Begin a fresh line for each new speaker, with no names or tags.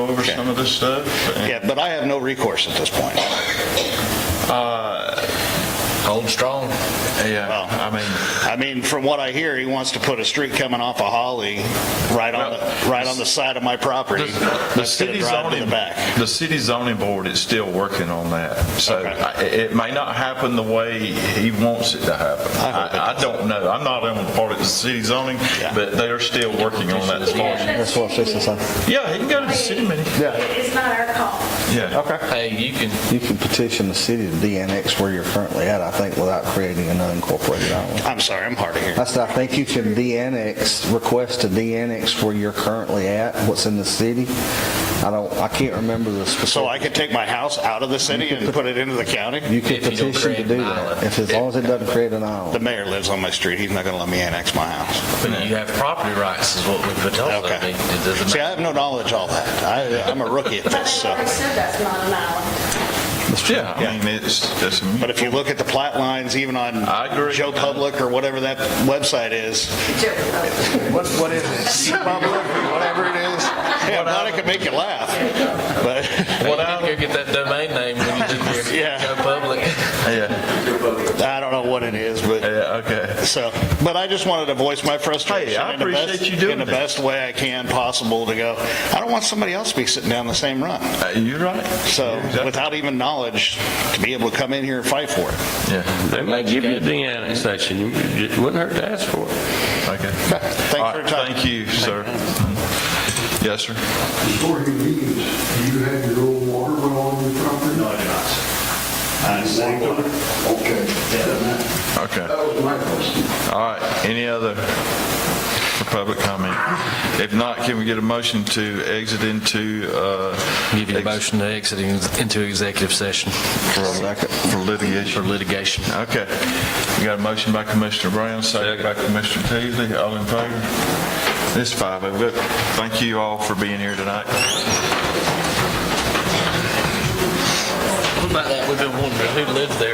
over
Okay.
some of this stuff. and,
Yeah, but I have no recourse at this point.
uh,
Hold strong.
Yeah,
Well-
I mean,
I mean, from what I hear, he wants to put a street coming off of Holly right on, the right on the side of my property.
the- the
That's gonna
city
drive to
zoning,
The back.
the city zoning board is still working on that. So
Okay.
I- it may not happen the way he wants it to happen.
I hope it
I I don't know. I'm not on the part of the city zoning,
Yeah.
but they are still working on that as far as.
That's what she said.
Yeah, he can go to the city meeting.
Yeah.
It's not our call.
Yeah.
Okay.
Hey, you can,
You can petition the city to de-annex where you're currently at, I think, without creating an unincorporated island.
I'm sorry, I'm hard of hearing.
I said, I think you can de-annex, request to de-annex where you're currently at, what's in the city. I don't, I can't remember the specific.
So I could take my house out of the city and put it into the county?
You can
If you don't
petition to
create
do
an
that,
island.
if, as long as it doesn't create an
The
island.
mayor lives on my street, he's not gonna let me annex my house.
you have property rights is what we've been told. I
Okay.
mean, It doesn't
See, I
matter.
have no knowledge of all that. I, I'm a rookie at
But
this,
they
so.
already said that's not an island.
Yeah, I mean, it's, that's.
But if you look at the plat lines, even on
I agree.
Joe Public or whatever that website is,
Joke, though.
What, what is it?
Public, whatever it is, yeah, I'm glad I could make you laugh. But
Hey, You need to go get that domain name when you do your,
Yeah.
go public.
Yeah,
I don't know what it is, but
yeah, okay.
so. But I just wanted to voice my frustration
Hey, I
in the best,
appreciate you doing
in the
that.
best way I can possible to go. I don't want somebody else to be sitting down the same run.
Uh, You're right.
So
Exactly.
without even knowledge, to be able to come in here and fight for it.
Yeah,
They might give you the annexation. You- It wouldn't hurt to ask for it.
okay.
Thanks
All
for your
right,
time.
Thank you, sir. Yes, sir.
Before he leaves, do you have your own water well on your property? No, I do not. I saved one. Okay. That
Okay.
was my question.
All right, any other for public comment? If not, can we get a motion to exit into, uh...
Give you a
ex-
motion to exit into executive session
For
for
litigation.
litigation.
Okay. We got a motion by Commissioner Brown, second by Commissioner Teasley, all in favor? It's five oh. Look, Thank you all for being here tonight.
What about that? We've been wondering who lived there.